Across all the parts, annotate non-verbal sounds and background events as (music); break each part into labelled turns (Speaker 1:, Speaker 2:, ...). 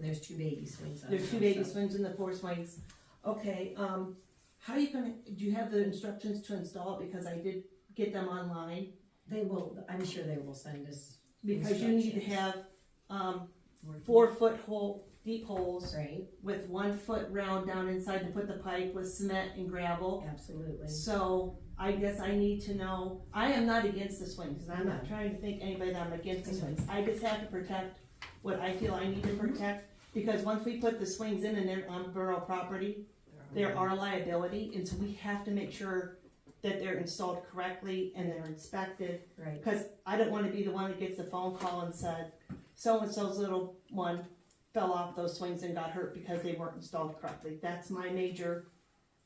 Speaker 1: there's two baby swings on
Speaker 2: There's two
Speaker 1: it
Speaker 2: baby
Speaker 1: also.
Speaker 2: swings and the four swings. Okay, um, how are you gonna, do you have the instructions to install it? Because I did get them online.
Speaker 1: They will, I'm sure they will send us.
Speaker 2: Because you need to
Speaker 1: Instructions.
Speaker 2: have, um,
Speaker 1: more
Speaker 2: four foot hole, deep holes
Speaker 1: details, Right,
Speaker 2: with one foot round down inside to put the pipe with cement and gravel.
Speaker 1: absolutely.
Speaker 2: So I guess I need to know, I am not against the swings, and I'm not
Speaker 1: No.
Speaker 2: trying to think anybody that I'm against the swings. I just have to protect what I feel I need to protect, because once we put the swings in and they're on borough property, there are liability, and so we have to make sure that they're installed correctly and they're inspected.
Speaker 1: Right,
Speaker 2: Because I don't wanna be the one that gets the phone call and said, so-and-so's little one fell off those swings and got hurt because they weren't installed correctly. That's my major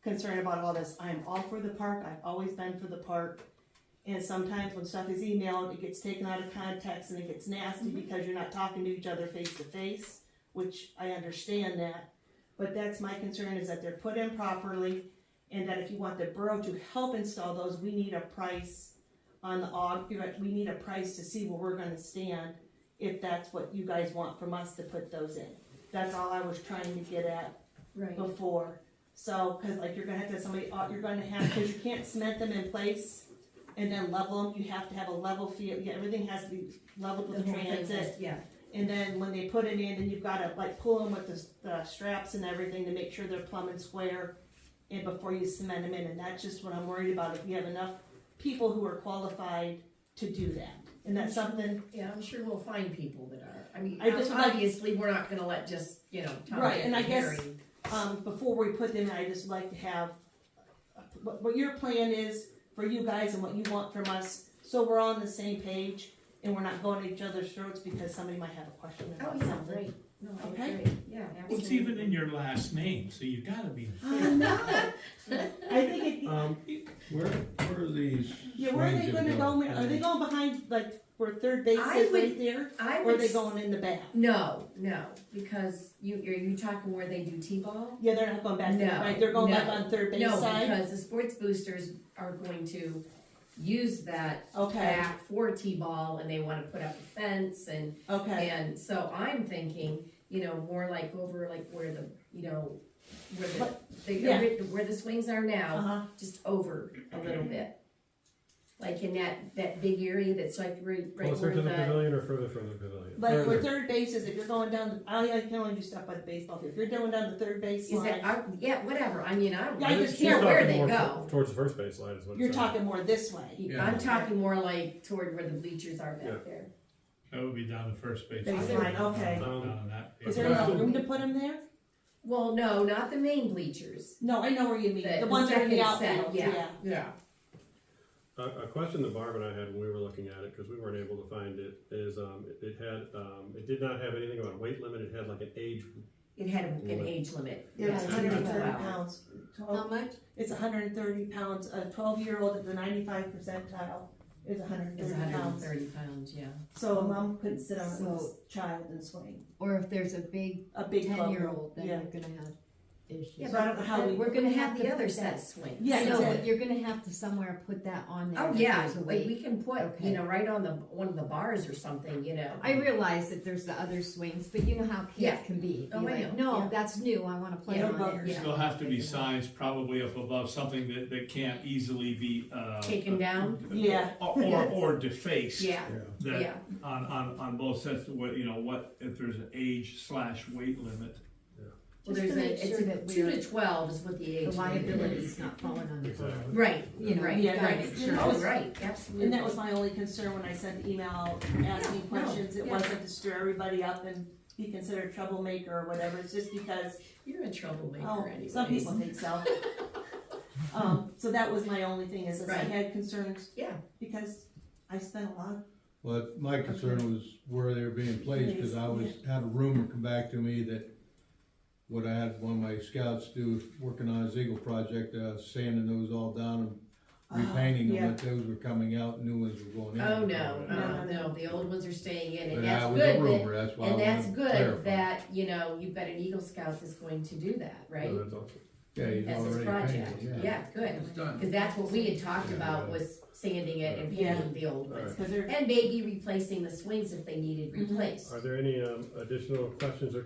Speaker 2: concern about all this. I'm all for the park, I've always been for the park. And sometimes when stuff is emailed, it gets taken out of context and it gets nasty because you're not talking to each other face to face, which I understand that. But that's my concern is that they're put in properly and that if you want the borough to help install those, we need a price on the aug, you know, we need a price to see where we're gonna stand if that's what you guys want from us to put those in. That's all I was trying to get at
Speaker 1: right,
Speaker 2: before. So, cause like you're gonna have to have somebody, au- you're gonna have, cause you can't cement them in place and then level them, you have to have a level field, yeah, everything has to be leveled
Speaker 1: the
Speaker 2: with the
Speaker 1: whole thing
Speaker 2: transit.
Speaker 1: is, yeah,
Speaker 2: And then when they put it in, then you've gotta like pull them with the, s- the straps and everything to make sure they're plumb and square. And before you cement them in, and that's just what I'm worried about, if we have enough people who are qualified to do that. And that's something,
Speaker 1: yeah, I'm sure we'll find people that are, I mean,
Speaker 2: I just would like-
Speaker 1: obviously, we're not gonna let just, you know, Tom,
Speaker 2: Right,
Speaker 1: Dick,
Speaker 2: and I guess-
Speaker 1: Harry.
Speaker 2: um, before we put them in, I just like to have, uh, what, what your plan is for you guys and what you want from us, so we're all on the same page and we're not going at each other's throats because somebody might have a question
Speaker 1: Oh,
Speaker 2: about
Speaker 1: yeah,
Speaker 2: something.
Speaker 1: right, no, I
Speaker 2: Okay.
Speaker 1: agree, yeah, absolutely.
Speaker 3: It's even in your last name, so you gotta be.
Speaker 2: (laughs)
Speaker 1: (laughs)
Speaker 2: I know. I think it,
Speaker 4: Um, where, where are these?
Speaker 2: Yeah, where are they
Speaker 4: swings
Speaker 2: gonna go, Ma- are they going behind, like, where third base
Speaker 1: I
Speaker 2: is right
Speaker 1: would-
Speaker 2: there,
Speaker 1: I
Speaker 2: or are
Speaker 1: would,
Speaker 2: they
Speaker 1: s-
Speaker 2: going in the back?
Speaker 1: no, no, because you, are you talking where they do T-ball?
Speaker 2: Yeah, they're not going back, there,
Speaker 1: No,
Speaker 2: right, they're going back
Speaker 1: no,
Speaker 2: on third base
Speaker 1: No,
Speaker 2: side,
Speaker 1: because the sports boosters are going to use that
Speaker 2: okay,
Speaker 1: back for T-ball and they wanna put up a fence and,
Speaker 2: okay,
Speaker 1: and so I'm thinking, you know, more like over like where the, you know, where the,
Speaker 2: yeah.
Speaker 1: the, where the swings are now,
Speaker 2: uh-huh,
Speaker 1: just over a little bit. Like in that, that big area that's like right, right
Speaker 5: Closer
Speaker 1: where
Speaker 5: to the
Speaker 1: the,
Speaker 5: pavilion or further from the pavilion?
Speaker 2: like, where third base is, if you're going down, the- I, I can only do stuff by the baseball field, if you're going down the third base
Speaker 1: is that,
Speaker 2: line,
Speaker 1: I- yeah, whatever, I mean, I don't
Speaker 2: Yeah, I
Speaker 1: really
Speaker 2: just-
Speaker 1: care
Speaker 5: She's
Speaker 1: where
Speaker 5: talking
Speaker 1: they
Speaker 5: more
Speaker 1: go.
Speaker 5: to- Towards the first baseline is what. it
Speaker 2: you're
Speaker 5: sounds.
Speaker 2: talking more this way.
Speaker 4: Yeah.
Speaker 1: I'm talking more like toward where the bleachers are
Speaker 5: Yeah.
Speaker 1: back there.
Speaker 3: That would be down the first base. Um,
Speaker 2: Baseline, okay.
Speaker 4: Um,
Speaker 3: Down that
Speaker 2: Is
Speaker 3: base.
Speaker 2: there enough room to put them there?
Speaker 1: Well, no, not the main bleachers.
Speaker 2: No, I know where you mean,
Speaker 1: The-
Speaker 2: the
Speaker 1: the
Speaker 2: ones that are in the
Speaker 1: second set,
Speaker 2: outfield,
Speaker 1: yeah.
Speaker 2: yeah,
Speaker 1: Yeah.
Speaker 5: A, a question that Barb and I had when we were looking at it, because we weren't able to find it, is, um, it- it had, um, it did not have anything about a weight limit, it had like an age.
Speaker 1: It had a- an
Speaker 5: Limit.
Speaker 1: age limit.
Speaker 2: yeah, it's
Speaker 1: Yeah,
Speaker 2: hundred and
Speaker 1: 12
Speaker 2: thirty
Speaker 1: hours.
Speaker 2: pounds.
Speaker 6: How much?
Speaker 2: It's hundred and thirty pounds, a twelve-year-old at the ninety-five percentile is hundred and
Speaker 1: It's
Speaker 2: thirty
Speaker 1: hundred and
Speaker 2: pounds.
Speaker 1: thirty pounds, yeah.
Speaker 2: So a mom couldn't sit on this
Speaker 6: So-
Speaker 2: child and swing,
Speaker 6: Or if there's a big
Speaker 2: a big club.
Speaker 6: ten-year-old, then
Speaker 2: Yeah.
Speaker 6: you're gonna have issues.
Speaker 1: Yeah,
Speaker 2: So I don't know how we,
Speaker 6: We're
Speaker 1: We're
Speaker 6: gonna
Speaker 1: gonna
Speaker 6: have
Speaker 1: have
Speaker 6: to
Speaker 1: the other
Speaker 6: put
Speaker 1: set
Speaker 6: that-
Speaker 1: swing.
Speaker 2: Yeah,
Speaker 6: So
Speaker 2: exactly.
Speaker 6: you're gonna have to somewhere put that on there.
Speaker 1: Oh,
Speaker 6: that
Speaker 1: yeah,
Speaker 6: there's a
Speaker 1: like
Speaker 6: weight.
Speaker 1: we can put,
Speaker 6: Okay.
Speaker 1: you know, right on the, one of the bars or something, you know.
Speaker 6: I realize that there's the other swings, but you know how
Speaker 1: Yeah.
Speaker 6: kids can be.
Speaker 1: Oh,
Speaker 6: Be
Speaker 1: I
Speaker 6: like,
Speaker 1: know, yeah.
Speaker 6: No, that's new, I wanna play
Speaker 1: Yeah,
Speaker 6: on
Speaker 2: but-
Speaker 6: it.
Speaker 1: yeah.
Speaker 3: They'll have to be sized probably up above something that, that can't easily be, uh.
Speaker 1: Taken down?
Speaker 2: Yeah.
Speaker 3: Or, or- or defaced.
Speaker 1: Yeah,
Speaker 3: That,
Speaker 1: yeah,
Speaker 3: on, on, on both sets, what, you know, what, if there's an age slash weight limit.
Speaker 1: well,
Speaker 6: Just to
Speaker 1: there's a,
Speaker 6: make
Speaker 1: it's
Speaker 6: sure
Speaker 1: a,
Speaker 6: that
Speaker 1: two
Speaker 6: we're-
Speaker 1: to twelve is what the
Speaker 6: The
Speaker 1: age limit
Speaker 6: liability's
Speaker 1: is.
Speaker 6: not falling on the
Speaker 5: Exactly.
Speaker 6: borough.
Speaker 1: Right,
Speaker 6: You know,
Speaker 1: right,
Speaker 2: Yeah,
Speaker 1: right,
Speaker 2: right.
Speaker 1: sure,
Speaker 2: That was-
Speaker 1: right, absolutely.
Speaker 2: and that was my only concern when I sent the email asking
Speaker 1: No, no,
Speaker 2: questions, it
Speaker 1: yeah.
Speaker 2: wasn't to stir everybody up and be considered troublemaker or whatever, it's just because,
Speaker 1: You're a troublemaker
Speaker 2: oh,
Speaker 1: anyways.
Speaker 2: some people think
Speaker 1: (laughs)
Speaker 2: so. Um, so that was my only thing, is that I
Speaker 1: Right.
Speaker 2: had concerns.
Speaker 1: Yeah.
Speaker 2: Because I spent a lot,
Speaker 7: Well, my concern was where they were being placed, cause I was, had a rumor come back to me that what I had one of my scouts do, working on his Eagle project, uh, sanding those all down
Speaker 2: Ah,
Speaker 7: and repainting
Speaker 2: yeah.
Speaker 7: them, but those were coming out, new ones were going in.
Speaker 1: Oh, no,
Speaker 2: No,
Speaker 1: no,
Speaker 2: no.
Speaker 1: no, the old ones are staying in,
Speaker 7: But
Speaker 1: and that's
Speaker 7: that
Speaker 1: good
Speaker 7: was a
Speaker 1: that
Speaker 7: rumor, that's why I
Speaker 1: And that's
Speaker 7: wanted to
Speaker 1: good
Speaker 7: clarify.
Speaker 1: that, you know, you've got an Eagle Scout that's going to do that, right?
Speaker 5: So that's awesome.
Speaker 7: Yeah, he's
Speaker 1: As his
Speaker 7: already
Speaker 1: project,
Speaker 7: painted, yeah.
Speaker 1: yeah, good,
Speaker 4: It's done.
Speaker 1: cause that's what we had talked
Speaker 7: Yeah,
Speaker 1: about
Speaker 7: yeah.
Speaker 1: was sanding it and
Speaker 2: Yeah.
Speaker 1: painting the old ones.
Speaker 2: because there,
Speaker 1: And maybe replacing the swings if they needed
Speaker 2: Mhm.
Speaker 1: replaced.
Speaker 5: Are there any, um, additional questions or